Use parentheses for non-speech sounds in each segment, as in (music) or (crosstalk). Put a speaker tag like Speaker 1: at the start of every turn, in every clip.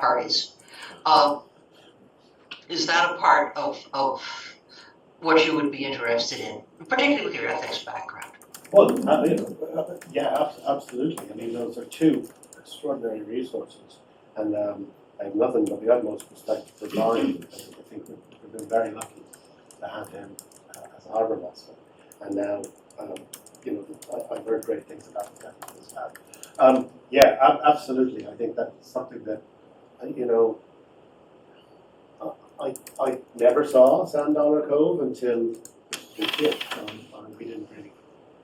Speaker 1: parties. Um, Is that a part of, of what you would be interested in, particularly with your ethics background?
Speaker 2: Well, I mean, uh, yeah, ab- absolutely. I mean, those are two extraordinary resources. And um, I have nothing but the utmost respect for Brian. I think we've, we've been very lucky to have him uh, as a harbour master. And now, um, you know, I, I've heard great things about the captain as well. Um, yeah, ab- absolutely. I think that's something that, uh, you know, uh, I- I, I never saw Sand Dollar Cove until we did. Um, and we didn't really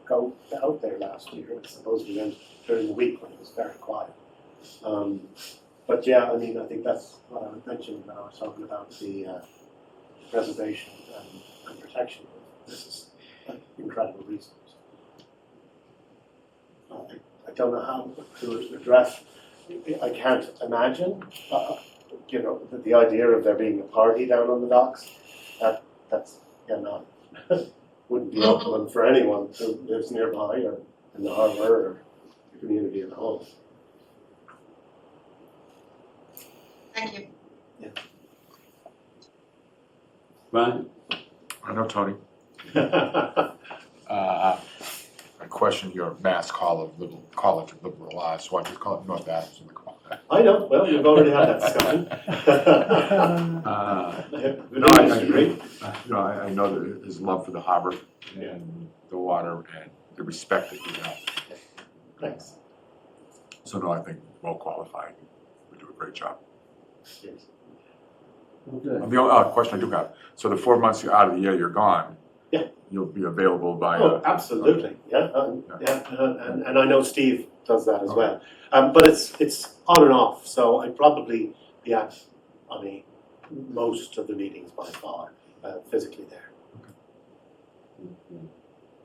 Speaker 2: go out there last year. I suppose we went during the week when it was very quiet. Um, but yeah, I mean, I think that's what I was mentioning when I was talking about the uh, preservation and, and protection. This is an incredible resource. I, I don't know how to address. I can't imagine. Uh, you know, the, the idea of there being a party down on the docks. That that's yeah, no, wouldn't be optimum for anyone who lives nearby or in the harbor or the community at home.
Speaker 1: Thank you.
Speaker 3: Right.
Speaker 4: I know, Tony.
Speaker 2: yeah,
Speaker 4: Uh, I questioned your mass call of liberal, College of Liberal Arts, so I just call it North Adams in the College.
Speaker 2: I know. Well, you've already had that discussion.
Speaker 4: Uh,
Speaker 2: no,
Speaker 4: No, I I agree. Uh, You know, I, I know that his love for the harbor and the water and the respect that you have.
Speaker 2: Thanks.
Speaker 4: So no, I think well qualified. We do a great job.
Speaker 2: Cheers.
Speaker 3: Okay.
Speaker 4: The only uh, question I do have, so the four months you're out of the year, you're gone.
Speaker 2: Yeah.
Speaker 4: You'll be available by,
Speaker 2: Oh,
Speaker 4: uh,
Speaker 2: absolutely. Yeah, um,
Speaker 4: Yeah.
Speaker 2: yeah, uh, and, and I know Steve does that as well. Um, but it's it's on and off, so I'd probably be at I mean most of the meetings by far uh, physically there.
Speaker 3: Mm-hmm.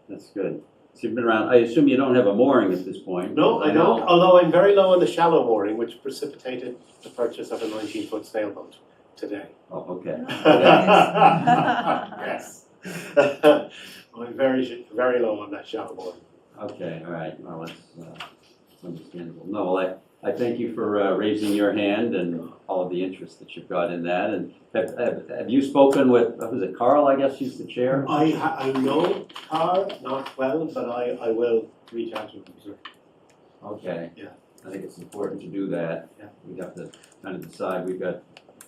Speaker 3: That's good. So you've been around, I assume you don't have a mooring at this point?
Speaker 2: No, I don't, although I'm very low on the shallow mooring, which precipitated the purchase of a nineteen foot sailboat today.
Speaker 3: Oh, okay.
Speaker 2: (laughs)
Speaker 5: (laughs)
Speaker 2: Yes. (laughs) I'm very, sh- very low on that shallow mooring.
Speaker 3: Okay, all right, well, that's uh, understandable. No, well, I, I thank you for uh, raising your hand and all of the interest that you've got in that. And have, have, have you spoken with, uh, was it Carl, I guess he's the chair?
Speaker 2: I ha- I know Carr not well, but I, I will reach out to him, sir.
Speaker 3: Okay.
Speaker 2: Yeah.
Speaker 3: I think it's important to do that.
Speaker 2: Yeah.
Speaker 3: We have to kind of decide, we've got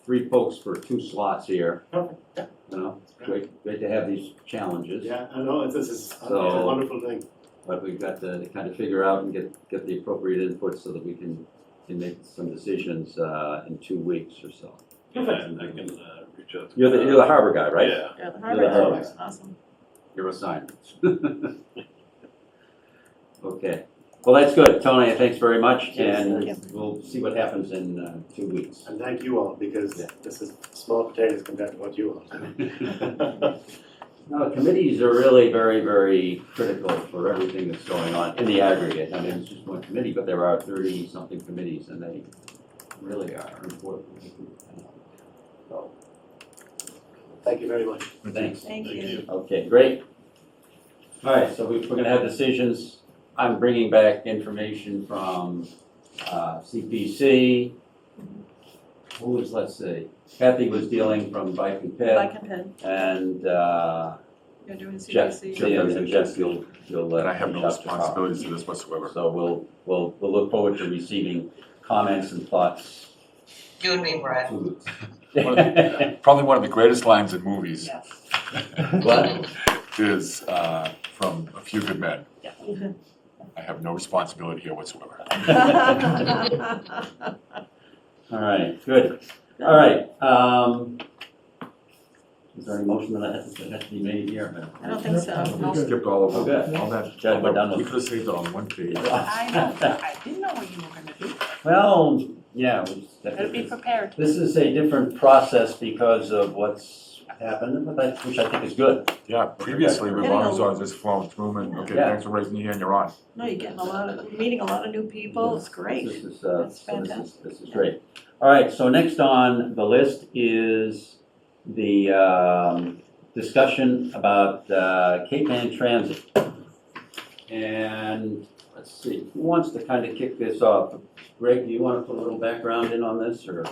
Speaker 3: three folks for two slots here.
Speaker 2: Perfect, yeah.
Speaker 3: You know, great, great to have these challenges.
Speaker 2: Yeah, I know, this is, it's a
Speaker 3: So-
Speaker 2: wonderful thing.
Speaker 3: But we've got to kind of figure out and get, get the appropriate input so that we can, can make some decisions, uh, in two weeks or so.
Speaker 6: Yeah, and I can uh, reach out. to
Speaker 3: You're the,
Speaker 6: Kyle.
Speaker 3: you're the harbor guy, right?
Speaker 6: Yeah.
Speaker 5: Yeah,
Speaker 3: Yeah,
Speaker 5: the
Speaker 3: the
Speaker 5: Harvard
Speaker 3: Harvard.
Speaker 5: is awesome.
Speaker 3: Your assignments. (laughs) Okay, well, that's good, Tony, thanks very much,
Speaker 2: Yes,
Speaker 3: and
Speaker 5: thank
Speaker 3: we'll see what happens in, uh, two weeks.
Speaker 2: And thank you all, because
Speaker 3: Yeah.
Speaker 2: this is small potatoes compared to what you
Speaker 3: (laughs)
Speaker 2: all
Speaker 3: No, committees are really very, very critical for everything that's going on in the aggregate. I mean, it's just one committee, but there are thirty-something committees, and they really are important. So,
Speaker 2: Thank you very much.
Speaker 3: thanks.
Speaker 5: Thank
Speaker 6: Thank
Speaker 5: you.
Speaker 6: you.
Speaker 3: Okay, great. All right, so we- we're gonna have decisions. I'm bringing back information from uh, CPC. Who was, let's see, Kathy was dealing from Bike and Ped,
Speaker 5: Black and pen,
Speaker 3: and uh,
Speaker 5: you're doing
Speaker 3: Jeff,
Speaker 5: CPC. (laughs)
Speaker 3: yeah, and Jeff, you'll, you'll let.
Speaker 4: and I have no
Speaker 3: Jeff talk.
Speaker 4: responsibilities to this whatsoever.
Speaker 3: So we'll, we'll, we'll look forward to receiving comments and thoughts.
Speaker 1: You and me, Brad.
Speaker 3: What? (laughs)
Speaker 4: (laughs) Probably one of the greatest lines in movies
Speaker 3: Well,
Speaker 4: is uh, from A Few Good Men.
Speaker 3: Mm-hmm.
Speaker 5: Mhm.
Speaker 4: I have no responsibility here whatsoever.
Speaker 3: All right, good. All right, um, is there any motion that has, that has to be made here?
Speaker 5: I don't think so.
Speaker 4: Skipped all of
Speaker 3: Okay.
Speaker 4: them, all that.
Speaker 3: Chad, we're done with-
Speaker 4: We could have saved it on one page.
Speaker 3: (laughs)
Speaker 5: I know, I didn't know what you were gonna do.
Speaker 3: Well, yeah, we just-
Speaker 5: Better be prepared.
Speaker 3: this is a different process because of what's happened, but that, which I think is good.
Speaker 4: Yeah, previously, we
Speaker 5: I don't
Speaker 4: was
Speaker 5: know.
Speaker 4: on this flowing through and, okay,
Speaker 3: Yeah.
Speaker 4: thanks for raising your hand, you're on.
Speaker 5: No, you're getting a lot of, meeting a lot of new people, it's
Speaker 3: This
Speaker 5: great.
Speaker 3: is, uh,
Speaker 5: That's
Speaker 3: so this is,
Speaker 5: fantastic.
Speaker 3: this is great. All right, so next on the list is the, um, discussion about, uh, Cape Ann Transit. And, let's see, who wants to kind of kick this off? Greg, do you want to put a little background in on this, or?